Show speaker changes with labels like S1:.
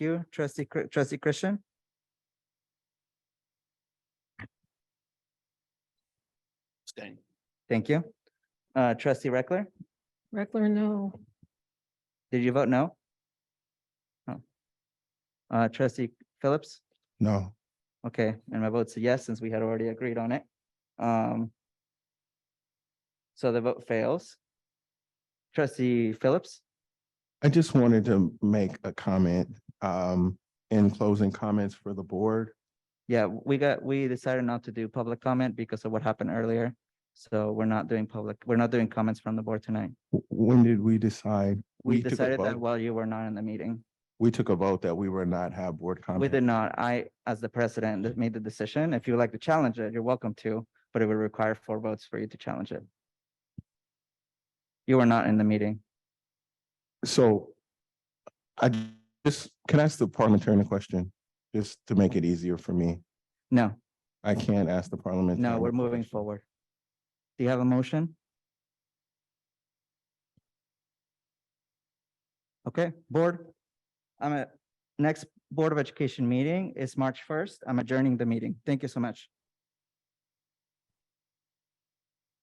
S1: you, trustee, Cr- trustee Christian.
S2: Abstain.
S1: Thank you. Uh, trustee Reckler,
S3: Reckler, no.
S1: did you vote no? No. Uh, trustee Phillips?
S4: No,
S1: Okay, and my vote's a yes, since we had already agreed on it. Um. So the vote fails. Trustee Phillips,
S4: I just wanted to make a comment um in closing comments for the board.
S1: yeah, we got, we decided not to do public comment because of what happened earlier. So we're not doing public, we're not doing comments from the board tonight.
S4: W- When did we decide?
S1: We
S4: took a
S1: decided that
S4: vote-
S1: while you were not in the meeting.
S4: We took a vote that we were not have board
S1: We did
S4: comment.
S1: not, I, as the president, that made the decision. If you would like to challenge it, you're welcome to, but it would require four votes for you to challenge it. You were not in the meeting.
S4: So I j- just, can I ask the parliamentarian a question? Just to make it easier for me.
S1: No.
S4: I can't ask the parliament.
S1: No, we're moving forward. Do you have a motion? Okay, board. I'm at, next Board of Education meeting is March first. I'm adjourning the meeting. Thank you so much.